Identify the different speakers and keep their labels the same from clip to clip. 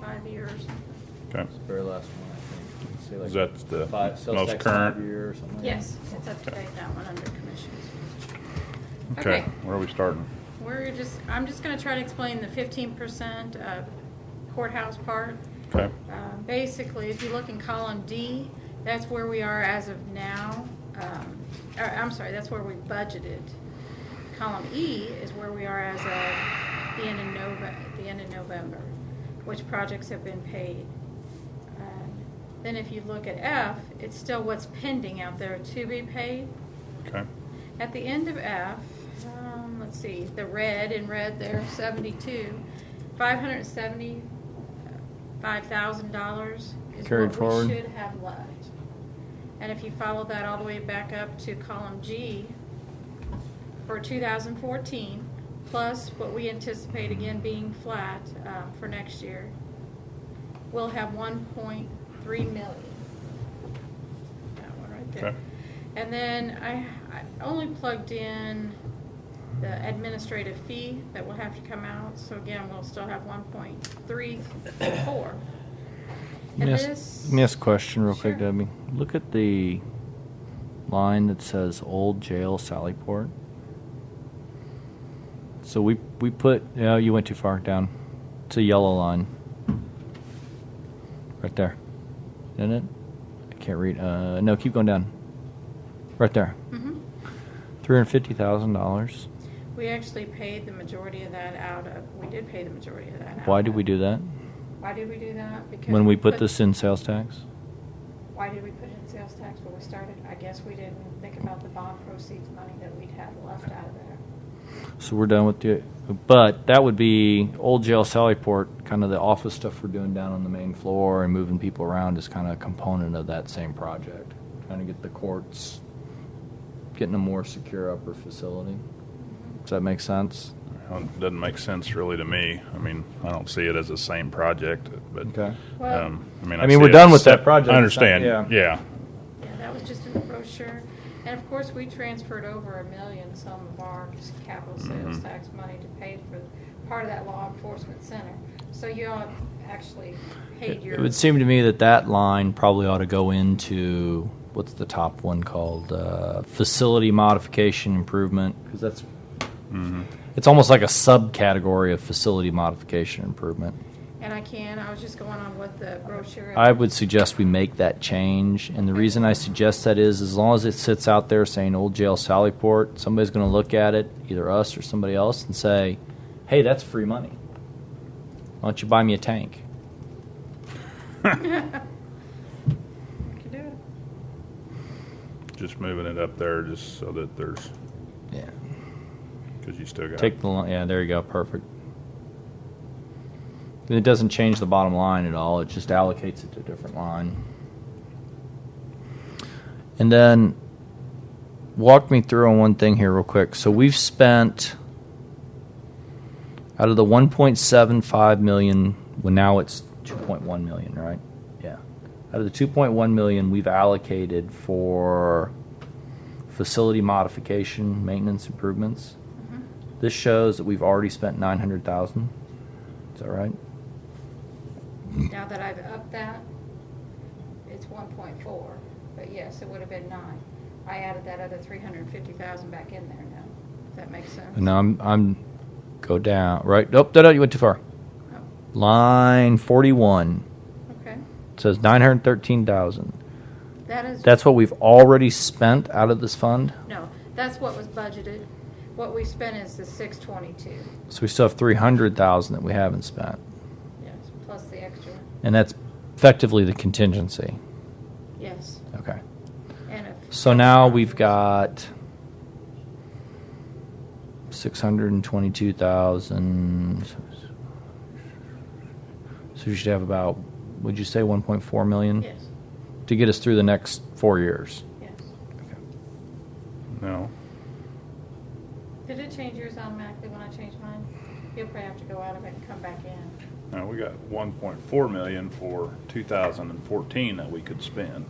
Speaker 1: five years.
Speaker 2: Okay.
Speaker 3: It's the Very last one, I think. Let's see, like,
Speaker 2: Is that the
Speaker 3: five- sales
Speaker 2: most
Speaker 3: tax
Speaker 2: current?
Speaker 3: five-year or something like that.
Speaker 1: Yes, it's up to date, that one under commissions.
Speaker 2: Okay,
Speaker 1: Okay.
Speaker 2: where are we starting?
Speaker 1: We're just, I'm just gonna try to explain the fifteen percent courthouse part.
Speaker 2: Okay,
Speaker 1: Uh, Basically, if you look in column D, that's where we are as of now. Um, or, I'm sorry, that's where we budgeted. Column E is where we are as of the end of Nov, the end of November, which projects have been paid. Um, Then if you look at F, it's still what's pending out there to be paid.
Speaker 2: okay,
Speaker 1: At the end of F, um, let's see, the red in red there, seventy-two, five hundred seventy-five thousand dollars is
Speaker 3: Carried
Speaker 1: what
Speaker 3: forward.
Speaker 1: we should have left. And if you follow that all the way back up to column G for two thousand fourteen, plus what we anticipate again being flat, um, for next year, we'll have one point three million. That one right there.
Speaker 2: Okay.
Speaker 1: And then I, I only plugged in the administrative fee that will have to come out, so again, we'll still have one point three four. And
Speaker 3: Miss,
Speaker 1: this,
Speaker 3: miss question real quick,
Speaker 1: Sure.
Speaker 3: Debbie. Look at the line that says Old Jail Sallyport. So we, we put, no, you went too far down. It's a yellow line. Right there. Isn't it? I can't read, uh, no, keep going down. Right there.
Speaker 1: Mhm.
Speaker 3: Three hundred fifty thousand dollars.
Speaker 1: we actually paid the majority of that out of, we did pay the majority of that out.
Speaker 3: Why did
Speaker 1: of-
Speaker 3: we do that?
Speaker 1: Why did we do that? Because.
Speaker 3: When we put this in sales tax?
Speaker 1: Why did we put it in sales tax when we started? I guess we didn't think about the bond proceeds money that we'd have left out of there.
Speaker 3: So we're done with the, but that would be old jail Sallyport, kind of the office stuff we're doing down on the main floor and moving people around is kind of a component of that same project. Trying to get the courts, getting a more secure upper facility. Does that make sense?
Speaker 2: Well, it doesn't make sense really to me. I mean, I don't see it as the same project, but,
Speaker 3: Okay.
Speaker 1: Well-
Speaker 2: um, I mean,
Speaker 3: I mean,
Speaker 2: see
Speaker 3: we're
Speaker 2: it
Speaker 3: done
Speaker 2: as
Speaker 3: with that
Speaker 2: sep-
Speaker 3: project. It's
Speaker 2: I
Speaker 3: not-
Speaker 2: understand,
Speaker 3: yeah.
Speaker 2: yeah,
Speaker 1: Yeah, that was just in the brochure. And of course, we transferred over a million some of our just capital sales
Speaker 3: Mm-hmm.
Speaker 2: Mhm.
Speaker 1: tax money to pay for part of that law enforcement center. So you all actually paid
Speaker 3: It
Speaker 1: your.
Speaker 3: it would seem to me that that line probably ought to go into, what's the top one called? Uh, Facility modification improvement, because that's,
Speaker 2: Mm-hmm.
Speaker 3: it's almost like a subcategory of facility modification improvement.
Speaker 1: And I can, I was just going on what the brochure.
Speaker 3: I would suggest we make that change, and the reason I suggest that is, as long as it sits out there saying Old Jail Sallyport, somebody's gonna look at it, either us or somebody else, and say, hey, that's free money. Why don't you buy me a tank?
Speaker 1: We could do it.
Speaker 2: just moving it up there just so that there's,
Speaker 3: Yeah.
Speaker 2: because you still got.
Speaker 3: Take the, li- yeah, there you go, perfect. And it doesn't change the bottom line at all, it just allocates it to a different line. And then, walk me through on one thing here real quick. So we've spent, out of the one point seven five million, well now it's two point one million, right? Yeah. Out of the two point one million, we've allocated for facility modification, maintenance improvements. This shows that we've already spent nine hundred thousand. Is that right?
Speaker 1: Now that I've upped that, it's one point four, but yes, it would have been nine. I added that other three hundred and fifty thousand back in there now, if that makes sense.
Speaker 3: And I'm I'm go down right. Nope, no, no, you went too far.
Speaker 1: Oh,
Speaker 3: Line forty one
Speaker 1: Okay,
Speaker 3: says nine hundred thirteen thousand.
Speaker 1: that is.
Speaker 3: That's what we've already spent out of this fund.
Speaker 1: No, that's what was budgeted. What we spent is the six twenty-two,
Speaker 3: So we still have three hundred thousand that we haven't spent,
Speaker 1: yes, plus the extra,
Speaker 3: and that's effectively the contingency.
Speaker 1: yes.
Speaker 3: Okay.
Speaker 1: And if-
Speaker 3: So now we've got six hundred and twenty-two thousand. So you should have about, would you say, one point four million
Speaker 1: Yes,
Speaker 3: to get us through the next four years?
Speaker 1: yes.
Speaker 2: No,
Speaker 1: Did it change yours automatically when I changed mine? You'll probably have to go out of it and come back in.
Speaker 2: no, we got one point four million for two thousand and fourteen that we could spend.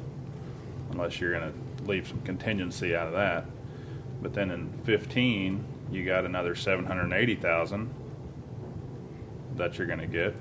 Speaker 2: Unless you're gonna leave some contingency out of that. But then in fifteen, you got another seven hundred and eighty thousand that you're gonna get.